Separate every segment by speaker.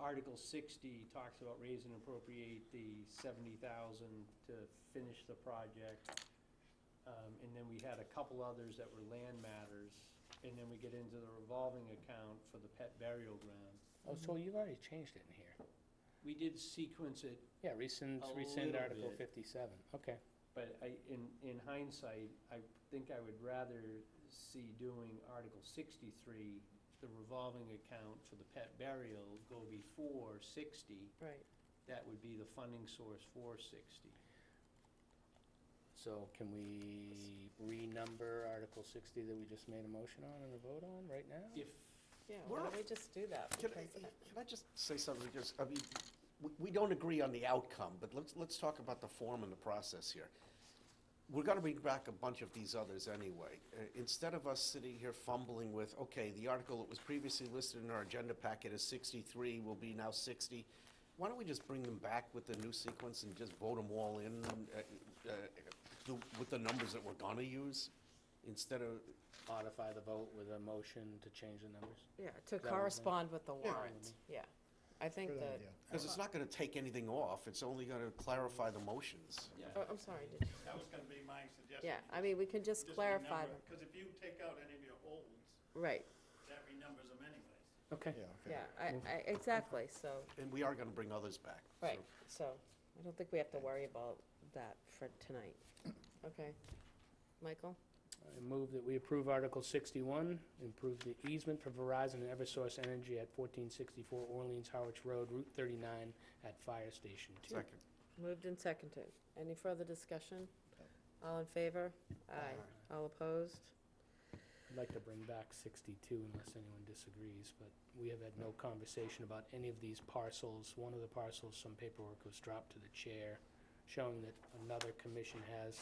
Speaker 1: Article sixty talks about raise and appropriate the seventy thousand to finish the project. Um, and then we had a couple others that were land matters, and then we get into the revolving account for the pet burial ground.
Speaker 2: Oh, so you've already changed it in here.
Speaker 1: We did sequence it,
Speaker 2: Yeah, rescind,
Speaker 1: A
Speaker 2: rescind
Speaker 1: little
Speaker 2: Article
Speaker 1: bit.
Speaker 2: fifty-seven, okay.
Speaker 1: but I, in, in hindsight, I think I would rather see doing Article sixty-three, the revolving account for the pet burial, go before sixty,
Speaker 3: Right.
Speaker 1: that would be the funding source for sixty.
Speaker 2: So can we renumber Article sixty that we just made a motion on and a vote on right now?
Speaker 1: If,
Speaker 3: Yeah, why don't we
Speaker 4: Well-
Speaker 3: just do that?
Speaker 4: Can I,
Speaker 3: Because, uh,
Speaker 4: can I just say something, because, I mean, we, we don't agree on the outcome, but let's, let's talk about the form and the process here. We're gonna bring back a bunch of these others anyway. Uh, Instead of us sitting here fumbling with, okay, the article that was previously listed in our agenda packet as sixty-three will be now sixty, why don't we just bring them back with the new sequence and just vote them all in, uh, uh, the- with the numbers that we're gonna use, instead of,
Speaker 2: Modify the vote with a motion to change the numbers?
Speaker 3: Yeah, to
Speaker 2: That would
Speaker 3: correspond with the
Speaker 4: Yeah.
Speaker 3: warrant, yeah. I think
Speaker 5: Good
Speaker 3: that,
Speaker 5: idea.
Speaker 4: because it's not gonna take anything off, it's only gonna clarify the motions.
Speaker 3: oh, I'm sorry, did-
Speaker 5: That was gonna be my suggestion.
Speaker 3: yeah, I mean, we can just clarify,
Speaker 5: Because if you take out any of your olds,
Speaker 3: right,
Speaker 5: that renumbers them anyways.
Speaker 2: Okay.
Speaker 5: Yeah.
Speaker 3: yeah, I, I, exactly, so,
Speaker 4: And we are going to bring others back. so-
Speaker 3: right, so, I don't think we have to worry about that for tonight. Okay, Michael?
Speaker 2: I move that we approve Article sixty-one, improve the easement for Verizon and Eversource Energy at fourteen sixty-four Orleans Howard Road, Route thirty-nine at Fire Station Two.
Speaker 4: Second.
Speaker 3: Moved and seconded. Any further discussion? All in favor? Aye. All opposed?
Speaker 2: I'd like to bring back 62 unless anyone disagrees, but we have had no conversation about any of these parcels. One of the parcels, some paperwork was dropped to the chair showing that another commission has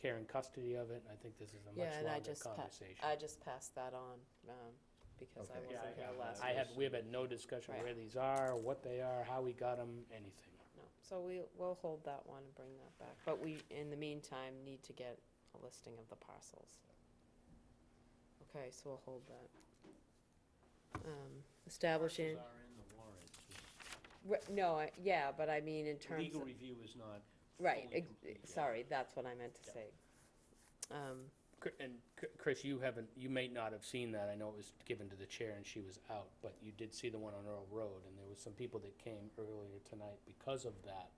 Speaker 2: care and custody of it, and I think this is a
Speaker 3: Yeah,
Speaker 2: much
Speaker 3: and I
Speaker 2: longer
Speaker 3: just, pa-
Speaker 2: conversation.
Speaker 3: I just passed that on, um, because I
Speaker 1: Yeah, I
Speaker 4: Okay.
Speaker 3: wasn't here
Speaker 1: have
Speaker 3: last
Speaker 1: that.
Speaker 2: I
Speaker 3: week.
Speaker 2: have, we have had no discussion where
Speaker 3: Right.
Speaker 2: these are, what they are, how we got them, anything.
Speaker 3: No, so we, we'll hold that one and bring that back, but we, in the meantime, need to get a listing of the parcels. Okay, so we'll hold that. Um, Establishing,
Speaker 1: Parcels are in the warrant.
Speaker 3: re- no, I- yeah, but I mean in terms
Speaker 1: Legal
Speaker 3: of,
Speaker 1: review is not
Speaker 3: right,
Speaker 1: fully
Speaker 3: ex-
Speaker 1: complete yet.
Speaker 3: sorry, that's what I meant to
Speaker 1: Yeah.
Speaker 3: say. Um,
Speaker 2: Cr- And C- Chris, you haven't, you may not have seen that. I know it was given to the chair and she was out, but you did see the one on Earl Road, and there was some people that came earlier tonight because of that.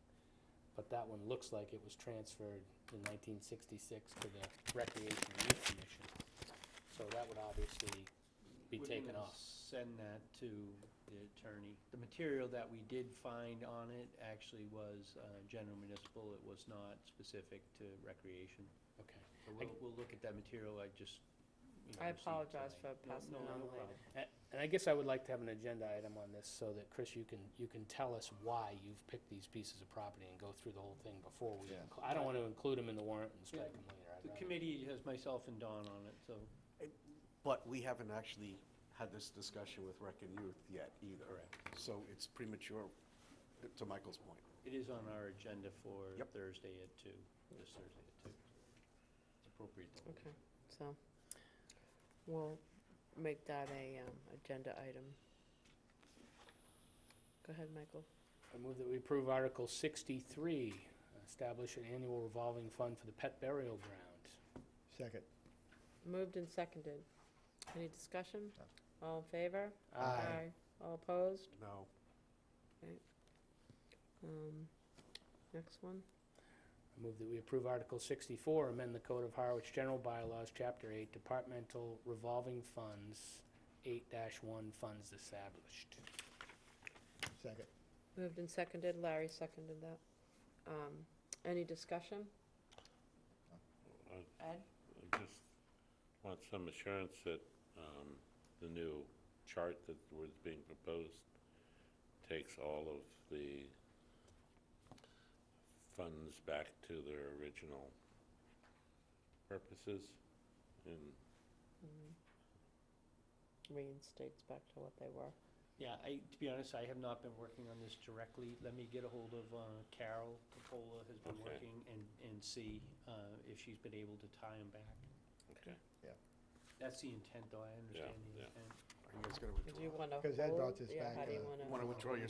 Speaker 2: But that one looks like it was transferred in nineteen sixty-six to the Recreation and Youth Commission. So that would obviously be
Speaker 1: We're
Speaker 2: taken
Speaker 1: gonna
Speaker 2: off.
Speaker 1: Send that to the attorney. The material that we did find on it actually was uh, general municipal. It was not specific to recreation.
Speaker 2: Okay.
Speaker 1: So We'll, we'll look at that material. I just, you know,
Speaker 3: I
Speaker 1: received
Speaker 3: apologize for
Speaker 1: tonight. No-
Speaker 3: passing
Speaker 1: no,
Speaker 3: it on
Speaker 1: no
Speaker 3: later.
Speaker 1: problem.
Speaker 2: A- And I guess I would like to have an agenda item on this so that, Chris, you can, you can tell us why you've picked these pieces of property and go through the whole thing before we,
Speaker 4: Yeah.
Speaker 2: inclu- I don't want to include them in the warrant and strike
Speaker 1: Yeah.
Speaker 2: them later. I'd
Speaker 1: The
Speaker 2: rather-
Speaker 1: committee has myself and Dawn on it, so.
Speaker 4: But we haven't actually had this discussion with Rec and Youth yet either.
Speaker 1: Correct.
Speaker 4: So it's premature, to Michael's point.
Speaker 1: It is on our agenda for
Speaker 4: Yep.
Speaker 1: Thursday at two, this Thursday at two. It's appropriate. that we-
Speaker 3: okay, so, we'll make that a, um, agenda item. Go ahead, Michael.
Speaker 2: I move that we approve Article 63, establish an annual revolving fund for the pet burial ground.
Speaker 5: Second.
Speaker 3: Moved and seconded. Any discussion? All in favor?
Speaker 2: Aye.
Speaker 3: All opposed?
Speaker 4: No.
Speaker 3: Um, Next one.
Speaker 2: I move that we approve Article 64, amend the Code of Harwich General Bylaws, Chapter 8, Departmental Revolving Funds, 8-1 Funds Established.
Speaker 5: Second.
Speaker 3: Moved and seconded. Larry seconded that. Um, Any discussion?
Speaker 6: I
Speaker 3: Ed?
Speaker 6: I just want some assurance that um, the new chart that was being proposed takes all of the funds back to their original purposes and
Speaker 3: Reinstates back to what they were.
Speaker 1: Yeah, I, to be honest, I have not been working on this directly. Let me get a hold of uh, Carol Capola, has been
Speaker 6: Okay.
Speaker 1: working, and, and see uh, if she's been able to tie them back.
Speaker 6: Okay.
Speaker 1: That's the intent, though, I understand the
Speaker 6: yeah.
Speaker 1: intent.
Speaker 4: I You guys gotta withdraw.
Speaker 3: Did you want to
Speaker 5: Because that
Speaker 3: hold?
Speaker 5: brought this
Speaker 3: Yeah,
Speaker 5: back,
Speaker 3: how do you
Speaker 5: uh,
Speaker 3: want to?
Speaker 4: Want to withdraw your